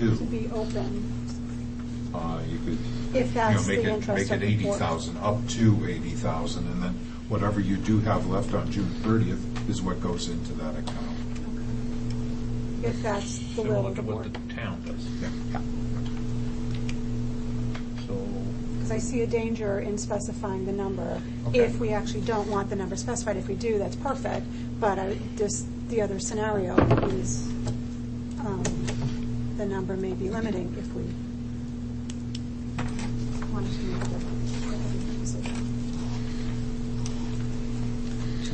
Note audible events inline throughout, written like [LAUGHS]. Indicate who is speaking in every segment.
Speaker 1: to
Speaker 2: to be open,
Speaker 1: Uh, You could,
Speaker 2: if
Speaker 1: you know,
Speaker 2: that's
Speaker 1: make
Speaker 2: the
Speaker 1: it, make
Speaker 2: interest of
Speaker 1: it
Speaker 2: the board.
Speaker 1: 80,000, up to 80,000, and then whatever you do have left on June 30th is what goes into that account.
Speaker 2: If that's the will
Speaker 3: Similar
Speaker 2: of
Speaker 3: to
Speaker 2: the
Speaker 3: what
Speaker 2: board.
Speaker 3: the town does.
Speaker 1: Yeah.
Speaker 3: So,
Speaker 2: Because I see a danger in specifying the number,
Speaker 1: Okay.
Speaker 2: if we actually don't want the number specified. If we do, that's perfect, but I, this, the other scenario is, um, the number may be limiting if we wanted to make a decision.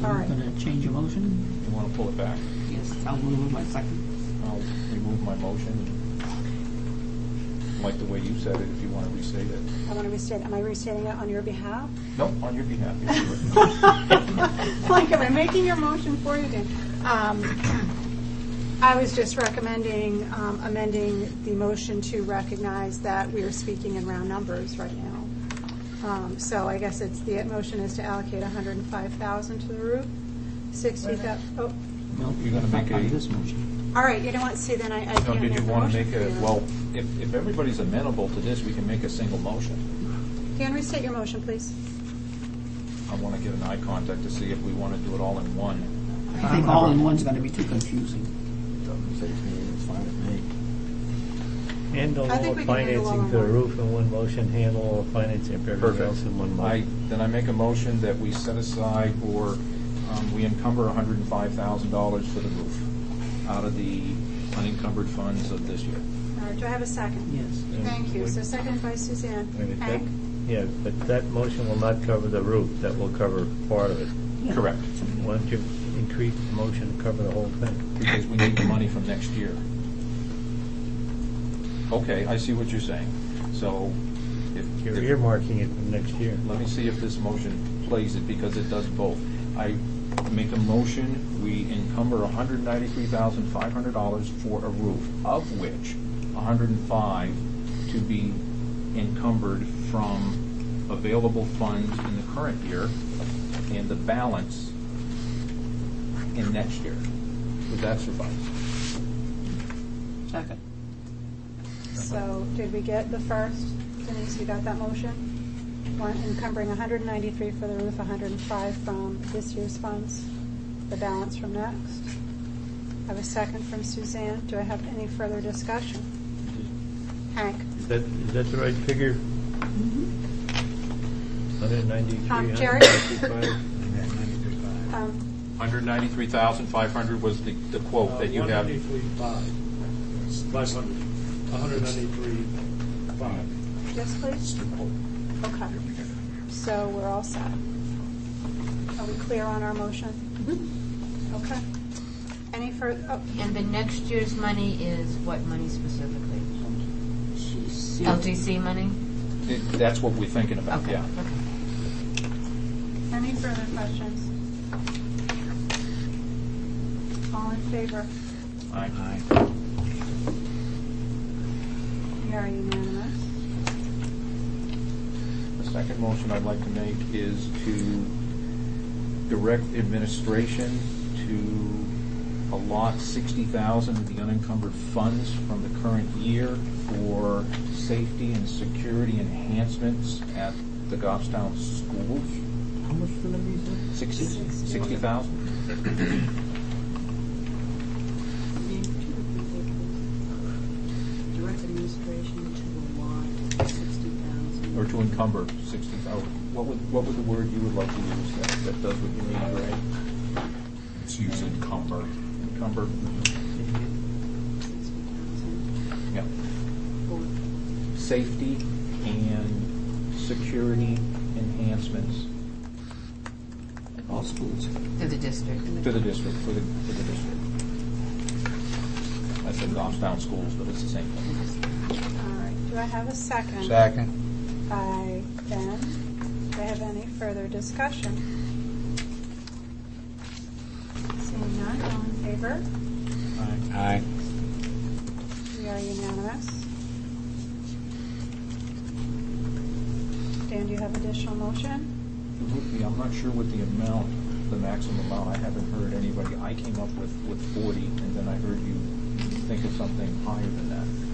Speaker 2: All
Speaker 4: Are you
Speaker 2: right,
Speaker 4: going to change your motion?
Speaker 3: you want to pull it back?
Speaker 4: Yes, I'll move my second.
Speaker 3: I'll remove my motion. and Like the way you said it, if you want to restate it.
Speaker 2: I want to restate, am I restating it on your behalf?
Speaker 3: No, on your behalf. you do
Speaker 1: [LAUGHS]
Speaker 3: it.
Speaker 2: [LAUGHS] Like, am I making your motion for you, Dan? Um, I was just recommending um, amending the motion to recognize that we are speaking in round numbers right now. Um, So I guess it's, the motion is to allocate 105,000 to the roof, 60,000, oh,
Speaker 4: No,
Speaker 3: You're gonna make
Speaker 4: on
Speaker 3: a-
Speaker 4: this motion.
Speaker 2: all right, you know what, see, then I I
Speaker 3: No,
Speaker 2: can't
Speaker 3: did
Speaker 2: make
Speaker 3: you
Speaker 2: a
Speaker 3: want to
Speaker 2: motion
Speaker 3: make
Speaker 2: for
Speaker 3: a,
Speaker 2: you.
Speaker 3: well, if, if everybody's amenable to this, we can make a single motion.
Speaker 2: Dan, restate your motion, please.
Speaker 3: I want to get an eye contact to see if we want to do it all in one.
Speaker 4: I think all in one's going to be too confusing.
Speaker 5: Handle
Speaker 2: I
Speaker 5: all
Speaker 2: think we
Speaker 5: the
Speaker 2: can handle all
Speaker 5: financing for the
Speaker 2: in one.
Speaker 5: roof in one motion, handle all the financing for everything else in one
Speaker 3: I,
Speaker 5: motion.
Speaker 3: then I make a motion that we set aside or um, we encumber hundred and five thousand dollars for the roof out of the unencumbered funds of this year.
Speaker 2: All right, do I have a second?
Speaker 4: Yes.
Speaker 2: Thank you. So seconded by Suzanne.
Speaker 5: I mean, if that-
Speaker 2: Hank?
Speaker 5: Yeah, but that motion will not cover the roof, that will cover part of it.
Speaker 4: Yeah.
Speaker 3: Correct.
Speaker 5: Why don't you increase the motion to cover the whole thing?
Speaker 3: Because we need the money from next year. Okay, I see what you're saying. So if.
Speaker 5: You're
Speaker 3: if-
Speaker 5: earmarking it for next year.
Speaker 3: Let me see if this motion plays it, because it does both. I make a motion, we encumber hundred ninety-three thousand five hundred dollars for a roof, of which hundred and five to be encumbered from available funds in the current year, and the balance in next year. Would that suffice?
Speaker 4: Second.
Speaker 2: So did we get the first? Denise, you got that motion? One encumbering 193 for the roof, 105 from this year's funds, the balance from next. I have a second from Suzanne. Do I have any further discussion? Hank?
Speaker 5: Is that, is that the right figure? Hundred ninety-three,
Speaker 2: Mm-hmm. Um,
Speaker 5: hundred
Speaker 2: Jerry?
Speaker 5: ninety-five?
Speaker 2: um,
Speaker 3: Hundred ninety-three thousand five hundred was the, the quote that you have.
Speaker 6: 183.5. 500. 183.5.
Speaker 2: Yes, please? Okay. So we're all set. Are we clear on our motion? Okay. Any oh, further,
Speaker 7: And the next year's money is what money specifically?
Speaker 4: She's-
Speaker 7: LGC money?
Speaker 3: It- That's what we're thinking about,
Speaker 7: Okay.
Speaker 3: yeah.
Speaker 7: okay.
Speaker 2: Any further questions? All in favor?
Speaker 3: Aye.
Speaker 2: We are unanimous.
Speaker 3: The second motion I'd like to make is to direct administration to allot sixty thousand of the unencumbered funds from the current year for safety and security enhancements at the Goffstown schools.
Speaker 4: How much for the reason?
Speaker 3: Sixty, sixty thousand?
Speaker 8: Name two of the vehicles. Direct administration to allot sixty thousand.
Speaker 3: Or to encumber sixty thousand. What would, what would the word you would like to use that, that does what you need, right?
Speaker 1: It's used encumber.
Speaker 3: Encumber,
Speaker 8: Sixty thousand
Speaker 3: yeah.
Speaker 8: for
Speaker 3: safety and security enhancements
Speaker 4: All schools.
Speaker 7: Through the district.
Speaker 3: to the district, for the, for the district. I said Goffstown schools, but it's the same thing.
Speaker 2: All right, do I have a second?
Speaker 1: Second.
Speaker 2: By Ben. Do I have any further discussion? Seeing none, all in favor?
Speaker 1: Aye.
Speaker 2: We are unanimous. Dan, do you have additional motion?
Speaker 3: Lucy, I'm not sure what the amount, the maximum amount, I haven't heard anybody, I came up with, with forty, and then I heard you think of something higher than that.